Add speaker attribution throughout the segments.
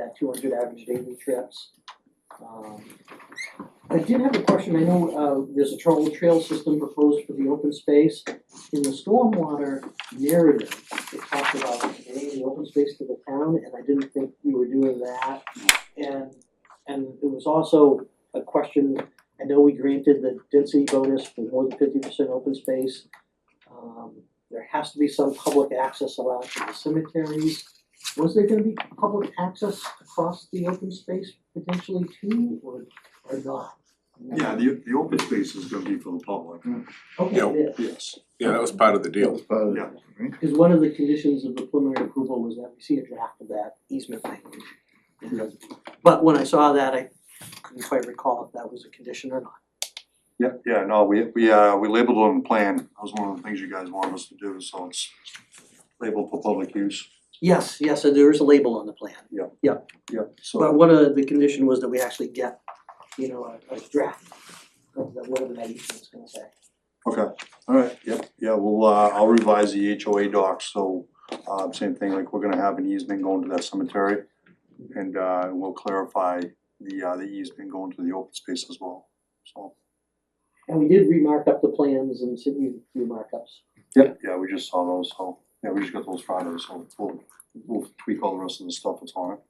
Speaker 1: at two hundred average daily trips. Um, I did have a question, I know, uh, there's a trolley trail system proposed for the open space. In the stormwater narrative, it talked about giving the open space to the town, and I didn't think we were doing that. And, and it was also a question, I know we granted the density bonus for more than fifty percent open space. Um, there has to be some public access allowed to the cemeteries. Was there gonna be public access across the open space potentially too, or, or not?
Speaker 2: Yeah, the, the open space is gonna be for the public,
Speaker 1: Okay,
Speaker 3: Yeah.
Speaker 1: it is.
Speaker 2: yes.
Speaker 3: Yeah, that was part of the
Speaker 4: That
Speaker 3: deal.
Speaker 4: was part of
Speaker 2: Yeah.
Speaker 4: it, right?
Speaker 1: Because one of the conditions of the preliminary approval was that we see a draft of that easement language. But when I saw that, I couldn't quite recall if that was a condition or not.
Speaker 2: Yeah, yeah, no, we, we, uh, we labeled it on the plan, that was one of the things you guys wanted us to do, so it's labeled for public use,
Speaker 1: Yes, yes, so there is a label on the plan,
Speaker 2: yeah, so.
Speaker 1: but one of the condition was that we actually get, you know, a, a draft of the, whatever that easement's gonna say.
Speaker 2: Okay, alright, yep, yeah, well, uh, I'll revise the HOA docs, so, uh, same thing, like, we're gonna have an easement going to that cemetery. And, uh, we'll clarify the, uh, the easement going to the open space as well, so,
Speaker 1: And we did remark up the plans and sent you through markups.
Speaker 2: yeah, yeah, we just saw those, so, yeah, we just got those Friday, so we'll, we'll tweak all the rest of the stuff that's on it.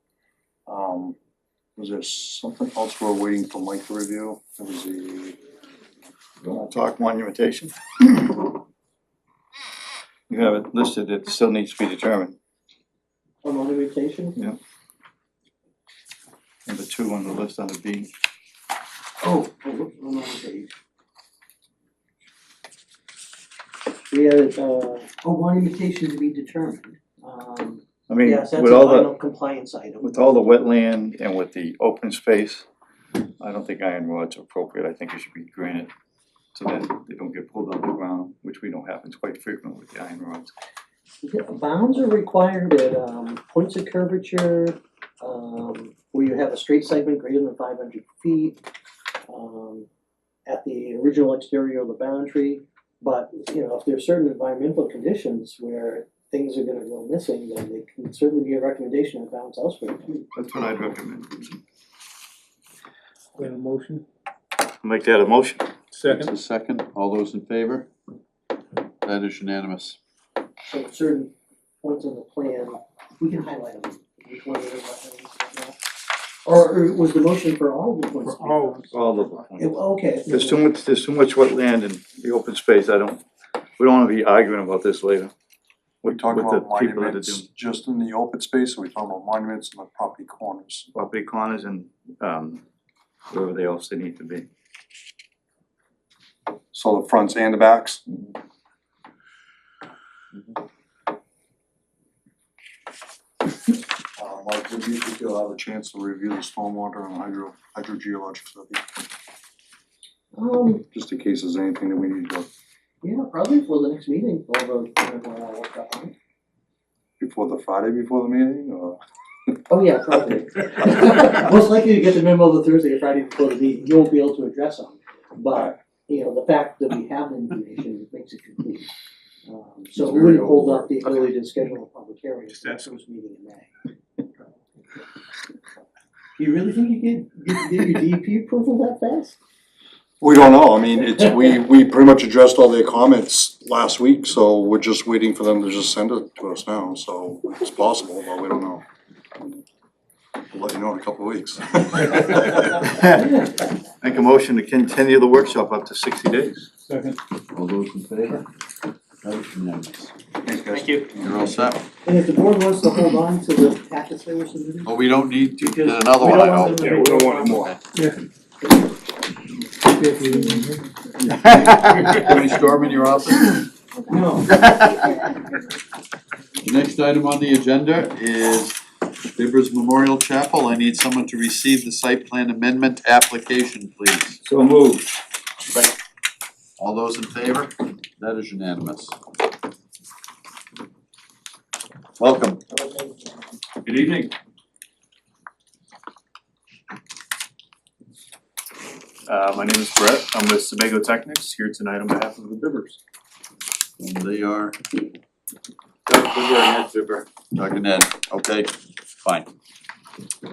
Speaker 2: Um, was there something else we're waiting for Mike to review? There was the,
Speaker 4: Don't wanna talk monumentation. You have it listed, it still needs to be determined,
Speaker 1: On monumentation,
Speaker 4: number two on the list on the B.
Speaker 1: oh, oh, whoops, I'm on the page. We had, uh, oh, monumentation to be determined, um.
Speaker 4: I mean,
Speaker 1: Yes,
Speaker 4: with
Speaker 1: that's a
Speaker 4: all the,
Speaker 1: final compliance item.
Speaker 4: with all the wetland and with the open space, I don't think iron rod's appropriate, I think it should be granted so that they don't get pulled out of the ground, which we know happens quite frequently with the iron rods.
Speaker 1: Yeah, Bounds are required at um points of curvature, um where you have a straight segment greater than five hundred feet. Um at the original exterior of the boundary, but you know, if there's certain environmental conditions where things are gonna go missing, then it can certainly be a recommendation of bounds elsewhere.
Speaker 4: That's what I'd recommend.
Speaker 5: We have a motion?
Speaker 4: Make that a motion.
Speaker 5: Second.
Speaker 6: It's a second, all those in favor? That is unanimous.
Speaker 1: So certain points on the plan, we can highlight them, which one are the wetlands, whatnot. Or or was the motion for all the points?
Speaker 5: For all.
Speaker 4: All of them.
Speaker 1: It- Okay.
Speaker 4: There's too much, there's too much wetland and the open space, I don't, we don't wanna be arguing about this later.
Speaker 2: we talked
Speaker 4: With the
Speaker 2: about
Speaker 4: people that are
Speaker 2: monuments
Speaker 4: doing
Speaker 2: just in the open space, or we talked about monuments in the property corners?
Speaker 4: Property corners and, um, wherever they else they need to be.
Speaker 2: So the fronts and the backs? Um, I think you think you'll have a chance to review the stormwater and hydro, hydrogeologic study,
Speaker 1: Um,
Speaker 2: just in case there's anything that we need to,
Speaker 1: Yeah, probably for the next meeting, although I don't know when I work up on it.
Speaker 2: before the Friday before the meeting, or?
Speaker 1: Oh, yeah, probably. Most likely to get the memo the Thursday or Friday before the meeting, you won't be able to address them. But, you know, the fact that we have the information makes it complete. Um, so
Speaker 2: It's
Speaker 1: we
Speaker 2: very
Speaker 1: wouldn't hold up
Speaker 2: overboard.
Speaker 1: the ability to schedule a public hearing
Speaker 5: Just
Speaker 1: for the
Speaker 5: ask them.
Speaker 1: first meeting in May. You really think you get, get, get your DEP approval that fast?
Speaker 2: We don't know, I mean, it's, we, we pretty much addressed all their comments last week, so we're just waiting for them to just send it to us now, so it's possible, but we don't know. We'll let you know in a couple of weeks.
Speaker 4: Make a motion to continue the workshop up to sixty days.
Speaker 5: Second.
Speaker 6: All those in favor? That is unanimous.
Speaker 2: Thanks, guys.
Speaker 1: you.
Speaker 6: You're all set?
Speaker 1: And if the board wants to hold on to the packets they were submitted?
Speaker 6: Well, we don't need to get another one, I hope.
Speaker 1: We don't want them to-
Speaker 6: Any storm in your office?
Speaker 1: No.
Speaker 6: The next item on the agenda is Bibbers Memorial Chapel. I need someone to receive the site plan amendment application, please.
Speaker 4: So moved.
Speaker 6: All those in favor? That is unanimous. Welcome.
Speaker 4: Good evening.
Speaker 7: Uh, my name is Brett, I'm with Sebago Technics, here tonight on behalf of the Bibbers.
Speaker 6: And they are
Speaker 7: Doug Bibber and Ed Bibber.
Speaker 6: Doug and Ed, okay, fine.